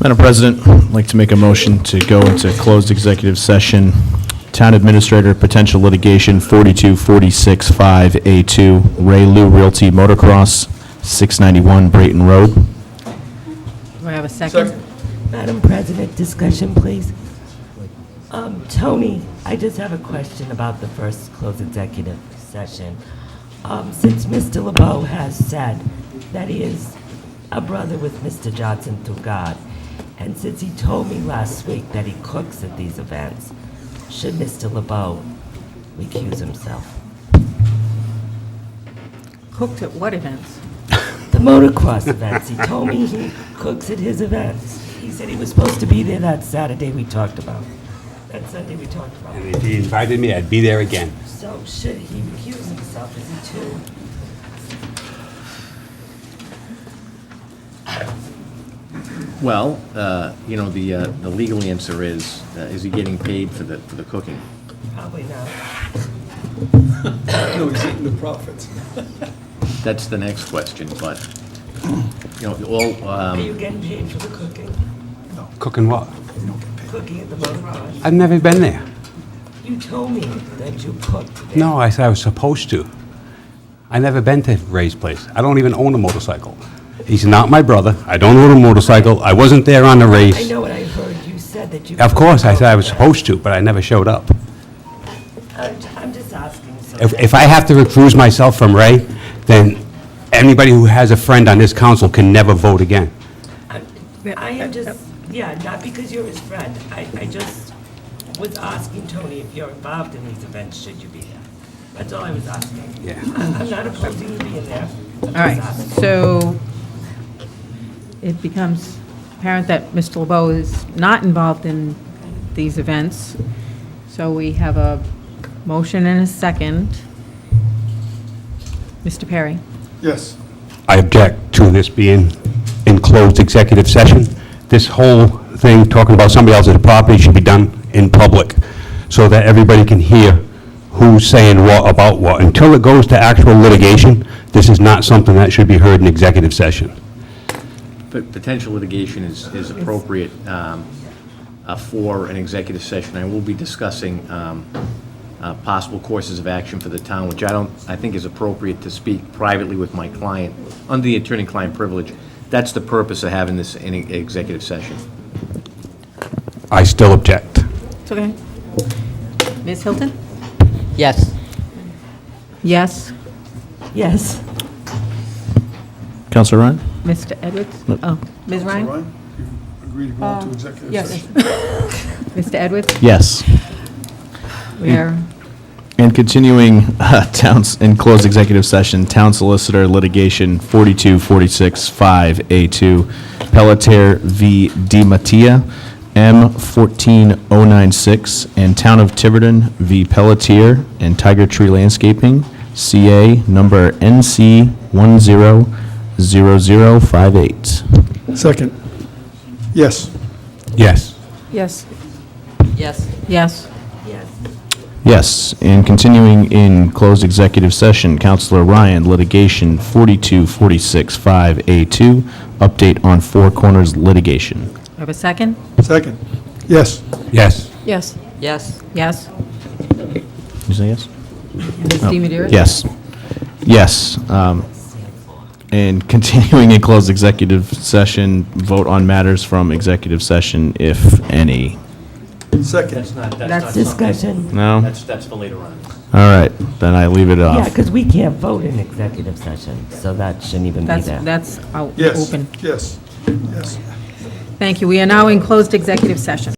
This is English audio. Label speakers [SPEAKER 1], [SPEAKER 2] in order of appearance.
[SPEAKER 1] Madam President, I'd like to make a motion to go into closed executive session, Town Administrator, potential litigation, 42465A2, Ray Lou Realty Motocross, 691 Brayton Road.
[SPEAKER 2] Do I have a second?
[SPEAKER 3] Madam President, discussion, please. Um, Tony, I just have a question about the first closed executive session. Um, Since Mr. LeBeau has said that he is a brother with Mr. Johnson through God, and since he told me last week that he cooks at these events, should Mr. LeBeau recuse himself?
[SPEAKER 2] Cooked at what events?
[SPEAKER 3] The motocross events, he told me he cooks at his events. He said he was supposed to be there that Saturday we talked about, that Sunday we talked about.
[SPEAKER 4] And if he invited me, I'd be there again.
[SPEAKER 3] So should he recuse himself? Is he too?
[SPEAKER 5] Well, uh, you know, the uh, the legal answer is, uh, is he getting paid for the, for the cooking?
[SPEAKER 3] Probably not.
[SPEAKER 6] No, he's eating the profits.
[SPEAKER 5] That's the next question, but, you know, all,
[SPEAKER 3] Are
[SPEAKER 5] um,
[SPEAKER 3] you getting paid for the cooking?
[SPEAKER 4] Cooking what?
[SPEAKER 3] Cooking at the motocross?
[SPEAKER 4] I've never been there.
[SPEAKER 3] You told me that you cooked there.
[SPEAKER 4] No, I said I was supposed to. I never been to Ray's place. I don't even own a motorcycle. He's not my brother. I don't own a motorcycle. I wasn't there on the
[SPEAKER 3] I
[SPEAKER 4] race.
[SPEAKER 3] know what I heard. You said that you.
[SPEAKER 4] Of course, I said I was
[SPEAKER 3] cooked.
[SPEAKER 4] supposed to, but I never showed up.
[SPEAKER 3] I'm I'm just asking. so
[SPEAKER 4] If,
[SPEAKER 3] that-
[SPEAKER 4] if I have to recuse myself from Ray, then anybody who has a friend on this council can never vote again.
[SPEAKER 3] I'm- I am just, yeah, not because you're his friend. I, I just was asking Tony if you're involved in these events, should you be there? That's all I was asking.
[SPEAKER 4] Yeah.
[SPEAKER 3] I- I'm not opposing you being there. I'm just
[SPEAKER 2] All right,
[SPEAKER 3] asking.
[SPEAKER 2] so it becomes apparent that Mr. LeBeau is not involved in these events. So we have a motion and a second. Mr. Perry?
[SPEAKER 6] Yes.
[SPEAKER 4] I object to this being in closed executive session. This whole thing, talking about somebody else's property, should be done in public, so that everybody can hear who's saying what about what. Until it goes to actual litigation, this is not something that should be heard in executive session.
[SPEAKER 5] but potential litigation is, is appropriate um, uh, for an executive session. I will be discussing um, uh, possible courses of action for the town, which I don't, I think is appropriate to speak privately with my client, under the attorney-client privilege. That's the purpose of having this in e-, executive session.
[SPEAKER 4] I still object.
[SPEAKER 2] It's okay. Ms. Hilton?
[SPEAKER 7] Yes.
[SPEAKER 2] Yes.
[SPEAKER 3] Yes.
[SPEAKER 1] Counselor Ryan?
[SPEAKER 2] Mr. Edwards? Oh, Ms. Ryan?
[SPEAKER 6] Ryan, you agree to go into executive session?
[SPEAKER 2] Mr. Edwards?
[SPEAKER 1] Yes.
[SPEAKER 2] We are,
[SPEAKER 1] And continuing uh, towns, in closed executive session, Town Solicitor Litigation 42465A2, Pelletier v. Di Mattia, M14096, and Town of Tiverton v. Pelletier and Tiger Tree Landscaping, CA number NC100058.
[SPEAKER 6] Second. Yes.
[SPEAKER 4] Yes.
[SPEAKER 2] yes.
[SPEAKER 7] Yes.
[SPEAKER 2] Yes.
[SPEAKER 3] Yes.
[SPEAKER 1] Yes, and continuing in closed executive session, Counselor Ryan, litigation 42465A2, update on Four Corners litigation.
[SPEAKER 2] Do I have a second?
[SPEAKER 6] Second. Yes.
[SPEAKER 4] Yes.
[SPEAKER 2] Yes.
[SPEAKER 7] Yes.
[SPEAKER 2] Yes.
[SPEAKER 1] you say yes?
[SPEAKER 2] Ms. DiMedeiros?
[SPEAKER 1] Yes. Yes. um, And continuing in closed executive session, vote on matters from executive session, if any.
[SPEAKER 6] Second.
[SPEAKER 5] not,
[SPEAKER 2] That's
[SPEAKER 3] Discussion.
[SPEAKER 1] No? All
[SPEAKER 5] That's, that's for later on.
[SPEAKER 1] right, then I leave it
[SPEAKER 3] Yeah,
[SPEAKER 1] off.
[SPEAKER 3] because we can't vote in executive session, so that shouldn't even be
[SPEAKER 2] That's,
[SPEAKER 3] there.
[SPEAKER 2] that's out,
[SPEAKER 6] Yes.
[SPEAKER 2] open.
[SPEAKER 6] Yes. Yes.
[SPEAKER 2] Thank you. We are now in closed executive session.